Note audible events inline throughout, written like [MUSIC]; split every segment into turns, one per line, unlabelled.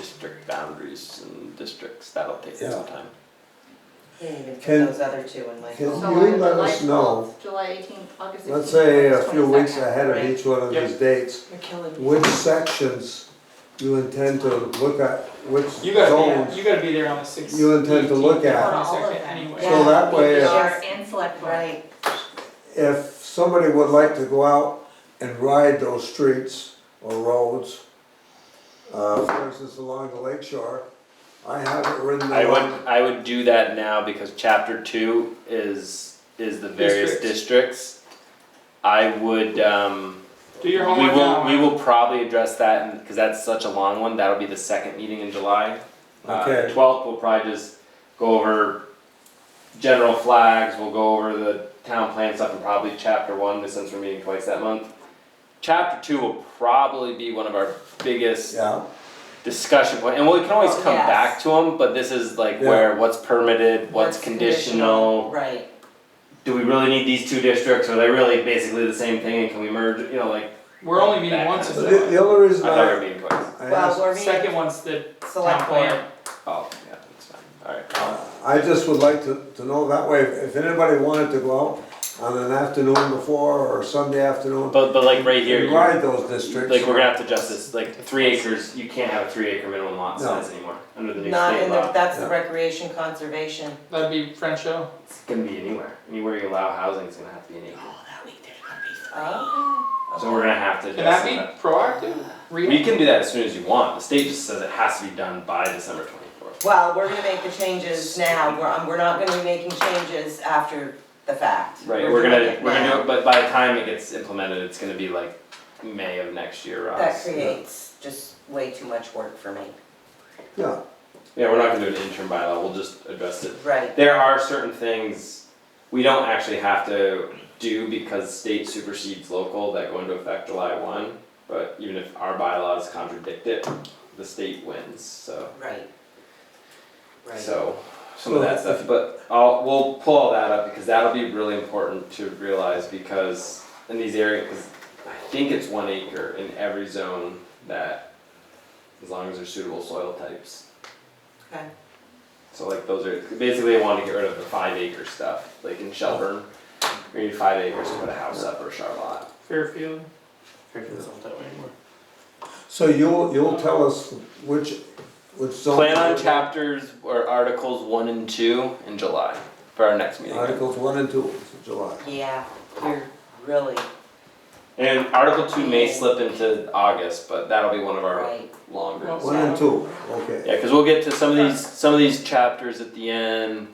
district boundaries and districts, that'll take
Yeah.
some time.
You didn't even put
Can-
those other two in like.
can-
oh,
So
you
on
let
July
us know.
12th, July eighteenth, August sixteenth.
Let's say a few weeks ahead of
right?
each one of
Yep.
these dates,
You're killing me.
which sections you intend to look at, which
You gotta
zones?
be, you gotta be there on the sixth.
You intend to look at.
Anyway,
So that way, uh,
Yeah.
Our and select board.
Right,
if somebody would like to go out and ride those streets or roads, uh, for instance, along the lake shore, I have it written
I would,
down.
I would do that now because chapter two is, is the various
Districts.
districts. I would, um,
do your
we
homework
will, we
now,
will probably address that, and, cause that's such a long one, that'll be the second meeting in July. Uh,
Okay.
Twelfth, we'll probably just go over general flags, we'll go over the town plan stuff, and probably chapter one, but since we're meeting twice that month. Chapter two will probably be one of our biggest
Yeah,
discussion point, and we can always
Oh,
come
yes.
back to them, but this is like
Yeah.
where, what's permitted, what's
What's
conditional.
conditional, right.
Do we really need these two districts, are they really basically the same thing, and can we merge, you know, like,
we're only meeting
Back.
once
but
a
So
the,
that-
month,
the only
I
reason
thought we were
I,
meeting twice.
I
Well,
asked,
we're
second
meeting
one's the town
select board.
plan,
Oh, yeah, that's fine, alright.
uh, I just would like to, to know that way, if if anybody wanted to go out on an afternoon before or Sunday afternoon,
But, but like right here,
and
you-
ride those
like
districts,
we're gonna have to adjust this, like three acres, you can't have a three acre minimum lot
No.
size anymore, under the new state law.
Not in the, that's the
Yeah.
recreation conservation.
that'd be French Hill.
It's gonna be anywhere, anywhere you allow housing is gonna have to be an acre,
Oh, okay.
so we're gonna have to
Can
adjust
that
that.
be proactive?
We
Re-
can do that as soon as you want, the state just says it has to be done by December twenty-fourth.
Well, we're gonna make the changes now, we're, um, we're not gonna be making changes after the fact.
Right, we're gonna,
doing it
we're gonna
now.
do it, but by the time it gets implemented, it's gonna be like May of next year, Ross.
That creates just way too much work for me.
yeah,
Yeah, we're not gonna do an interim bylaw, we'll just address it.
Right,
There are certain things we don't actually have to do because state supersedes local that go into effect July one. But even if our bylaws contradict it, the state wins, so,
right. Right.
so, some of that stuff, but I'll, we'll pull all that up because that'll be really important to realize because in these areas, 'cause I think it's one acre in every zone that, as long as there's suitable soil types,
Okay,
so like those are, basically I wanted to get rid of the five acre stuff, like in Shelburne, we need five acres to put a house up or a short lot.
Fairfield? Fairfield's not that way anymore.
so you'll, you'll tell us which, which zone.
Plan on chapters or articles one and two in July for our next meeting.
Articles one and two, July.
yeah, you're really
And article two may slip into August, but that'll be one of our
right.
longer.
One and two, okay.
Yeah, cause we'll get to some of these, some of these chapters at the end,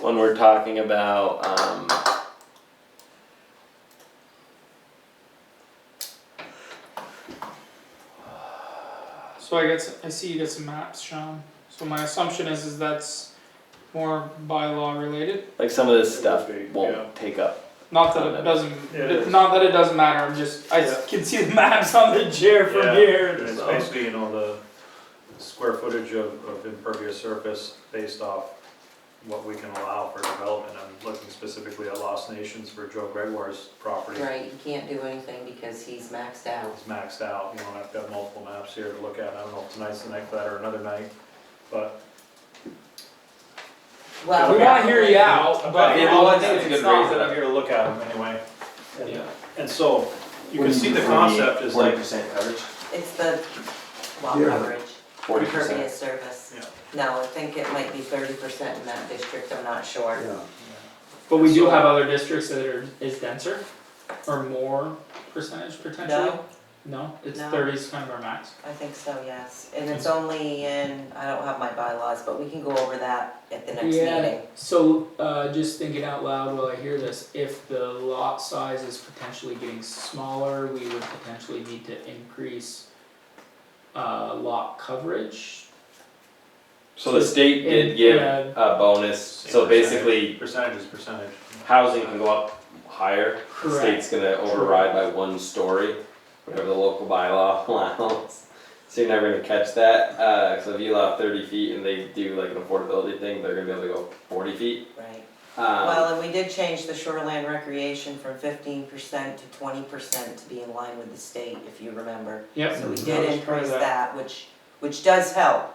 when we're talking about, um,
So I guess, I see you get some maps, Sean, so my assumption is, is that's more bylaw related,
like some of this stuff
Would be, yeah.
won't take up
not that it doesn't,
Yeah, it is.
not that it doesn't matter, I'm just, I
Yeah.
can see the maps on the chair from
Yeah,
here,
and It's
so.
basically, you know, the square footage of, of impervious surface based off what we can allow for development. I'm looking specifically at Lost Nations for Joe Gregoire's property.
Right, you can't do anything because he's maxed out.
It's maxed out, you know, and I've got multiple maps here to look at. I don't know if tonight's the night for that or another night, but
Well,
We wanna hear you out, but.
Yeah, well, I think it's a good
not-
reason.
that I'm here to look at them anyway. And-
Yeah.
And so, you can see the concept is
Forty
like,
percent coverage?
It's the well
Yeah.
coverage,
Forty percent.
impervious service.
Yeah.
No, I think it might be thirty percent in that district, I'm not sure.
Yeah.
But we do have other districts that are, is denser or more percentage potentially?
No,
No, it's
No.
thirty is kind of our max.
I think so, yes, and it's
Hmm.
only in, I don't have my bylaws, but we can go over that at the next
Yeah.
meeting.
So, uh, just thinking out loud while I hear this, if the lot size is potentially getting smaller, we would potentially need to increase uh, lot coverage.
So the state did
And-
give
yeah.
a bonus, so
Same percentage.
basically
percentage is percentage.
housing can go up higher. The
Correct.
state's gonna override by one story, whatever the local bylaw [LAUGHS] allows. So you're never gonna catch that, uh, so if you allow thirty feet and they do like an affordability thing, they're gonna be able to go forty feet.
Right,
Um,
well, and we did change the shoreline recreation from fifteen percent to twenty percent to be in line with the state, if you remember.
Yep.
So we
Hmm.
that
did
was part of
increase that, which which does help.